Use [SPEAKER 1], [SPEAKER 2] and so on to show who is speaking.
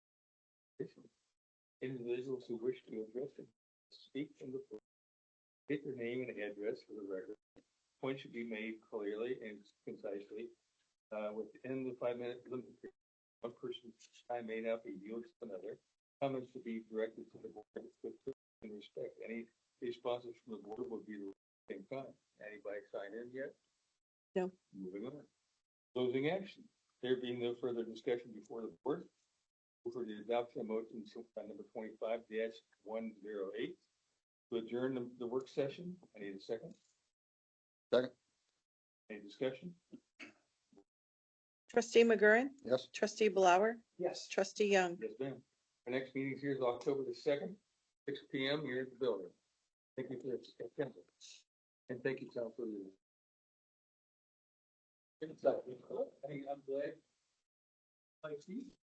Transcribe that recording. [SPEAKER 1] Individuals who wish to address and speak in the board, get their name and address for the record. Points should be made clearly and concisely, uh, within the five-minute limit. period. One person's time may not be yours to another. Comments should be directed to the board with courtesy and respect. Any responses from the board will be the same time. Anybody sign in yet?
[SPEAKER 2] No.
[SPEAKER 1] Moving on. Closing action. There being no further discussion before the board, move for the adoption of motion to- uh, number twenty-five one zero eight. To adjourn the, the work session, I need a second.
[SPEAKER 3] Second.
[SPEAKER 1] Any discussion?
[SPEAKER 2] Trustee McGurran,
[SPEAKER 3] Yes.
[SPEAKER 2] trustee Blower,
[SPEAKER 4] Yes.
[SPEAKER 2] trustee Young.
[SPEAKER 1] Yes, ma'am. Our next meeting here is October the second, six P M here at the building. Thank you for your attention. And thank you, Tom, for your. Good stuff. Hey, I'm glad. Like, see,